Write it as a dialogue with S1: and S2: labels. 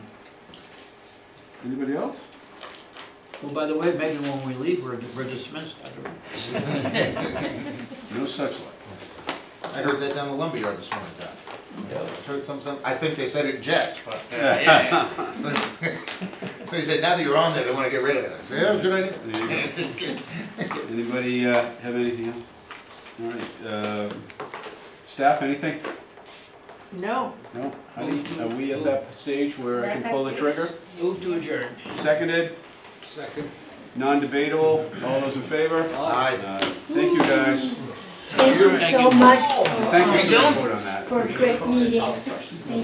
S1: Anybody else?
S2: Well, by the way, maybe when we leave, we're we're dismissed. I don't-
S1: No such luck.
S3: I heard that down the lumberyard this morning, Doc. Heard some, some, I think they said it in jest, but. uh, So he said, now that you're on there, they wanna get rid of it. I said, yeah, good idea.
S1: There you go. Anybody uh, have anything else? All right, uh, staff, anything?
S4: No.
S1: No? Honey, Are we at that stage where I can pull the trigger?
S2: Move to adjourn.
S1: Seconded,
S3: Second.
S1: non-debatable, all those in favor?
S3: Aye.
S1: Uh, Thank you, guys.
S4: Thank you
S2: Thank
S4: so
S2: you.
S4: much
S1: Thank you for
S4: for-
S1: your vote on that.
S4: for a great meeting.